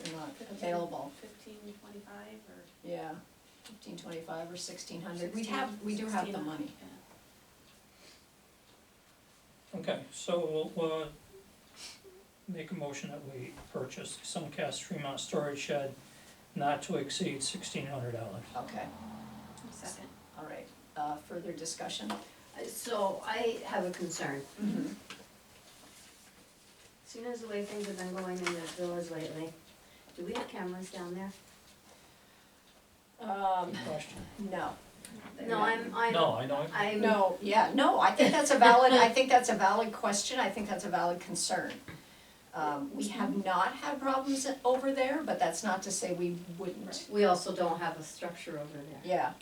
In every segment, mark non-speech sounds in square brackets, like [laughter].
are not Fifteen- available. Fifteen twenty-five or? Yeah, fifteen twenty-five or sixteen hundred, we have, we do have the 16, money. yeah. Okay, so we'll, uh, make a motion that we purchase Suncast Fremont Storage Shed not to exceed sixteen hundred dollars. Okay, Second. all right, uh, further discussion? Uh, So I have a concern. Mhm. Seeing as the way things have been going in the village lately, do we have cameras down there? Um, Question? no. No, I'm, I'm. No, I don't, I'm. No, yeah, no, I think that's a valid, I think that's a valid question, I think that's a valid concern. Um, we have not had problems over there, but that's not to say we wouldn't, We also don't have a structure over there. yeah.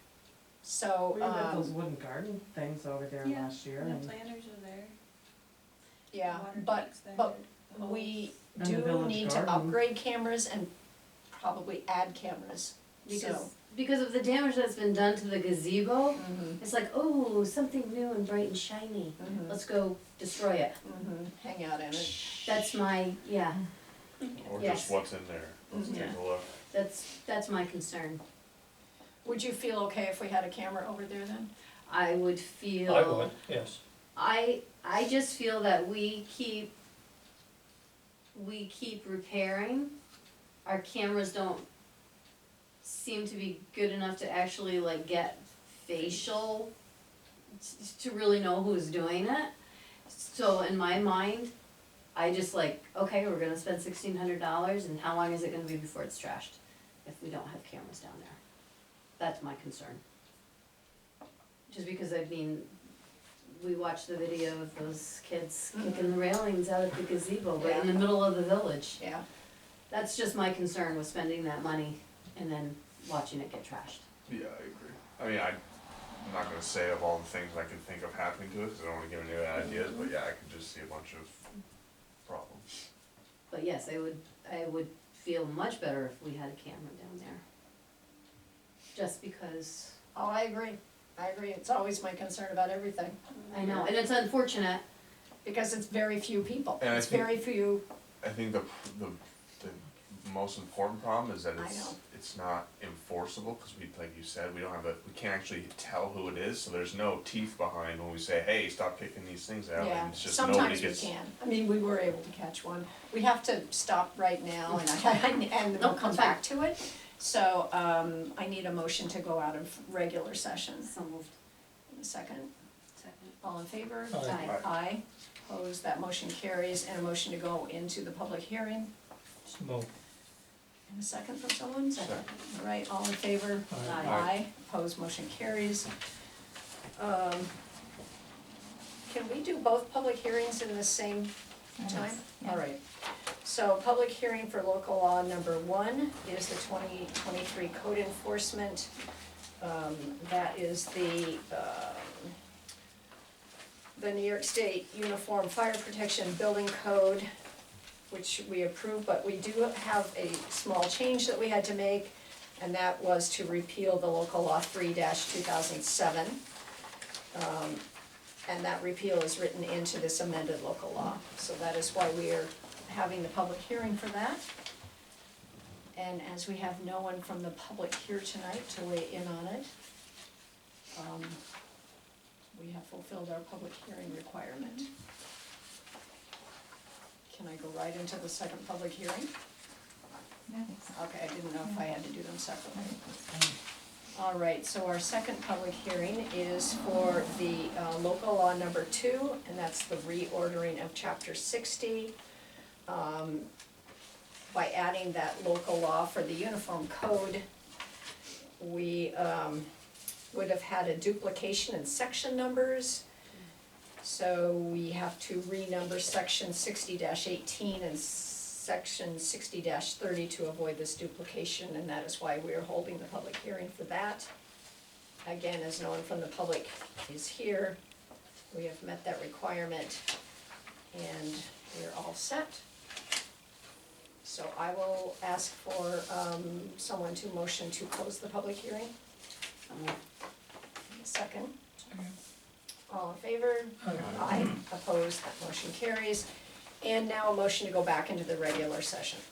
So, We had those um, wooden garden things over there Yeah, last year The and, planters are there. yeah, water but tanks there, but the whole- we And the do village need to garden. upgrade cameras and probably add cameras, so. Because, because of the damage that's been done to the gazebo, Mhm, it's like, oh, something new and bright and shiny. mhm. Let's go destroy it. Mhm, hang out in it. That's my, yeah, Or Yes. just what's in there, let's Mhm. take a look. that's, that's my concern. Would you feel okay if we had a camera over there then? I would feel. I would, yes. I I just feel that we keep we keep repairing. Our cameras don't seem to be good enough to actually like get facial t- to really know who's doing it. So in my mind, I just like, okay, we're gonna spend sixteen hundred dollars and how long is it gonna be before it's trashed if we don't have cameras down there? That's my concern. Just because I mean, we watched the video of those kids kicking the railings out at the gazebo right in the middle of the village. Yeah. That's just my concern with spending that money and then watching it get trashed. Yeah, I agree. I mean, I, I'm not gonna say of all the things I can think of happening to it, cause I don't wanna give any ideas, but yeah, I could just see a bunch of problems. But yes, I would, I would feel much better if we had a camera down there. Just because, Oh, I agree, I agree, it's always my concern about everything, I know, and it's unfortunate, because it's very few people, And I it's think- very few, I think the, the, the most important problem is that I it's, know. it's not enforceable, cause we, like you said, we don't have a, we can't actually tell who it is, so there's no teeth behind when we say, hey, stop kicking these things out, yeah, and it's just nobody sometimes we gets. can, I mean, we were able to catch one. We have to stop right now [laughs] and I, and we'll Nope, come that's fine. back to it, so, um, I need a motion to go out of regular session. so moved. Second, Second. all in favor? Aye. Aye. Aye, opposed, that motion carries, and a motion to go into the public hearing, So moved. and a second from someone, Second. All right, all in favor? Aye. Aye, opposed, motion carries. Um, Can we do both public hearings in the same time? All right. So public hearing for local law number one is the twenty twenty-three code enforcement. Um, That is the, um, the New York State Uniform Fire Protection Building Code, which we approved, but we do have a small change that we had to make and that was to repeal the local law three two thousand seven. Um, And that repeal is written into this amended local law, so that is why we are having the public hearing for that. And as we have no one from the public here tonight to weigh in on it, um, we have fulfilled our public hearing requirement. Can I go right into the second public hearing? Okay, I didn't know if I had to do them separately. All right, so our second public hearing is for the uh, local law number two, and that's the reordering of chapter sixty. um, By adding that local law for the uniform code, we um, would have had a duplication in section numbers. So we have to renumber section sixty eighteen and section sixty thirty to avoid this duplication, and that is why we are holding the public hearing for that. Again, as no one from the public is here, we have met that requirement, and we're all set. So I will ask for, um, someone to motion to close the public hearing, So moved. second. All in favor? Aye. Aye, opposed, that motion carries. And now a motion to go back into the regular session.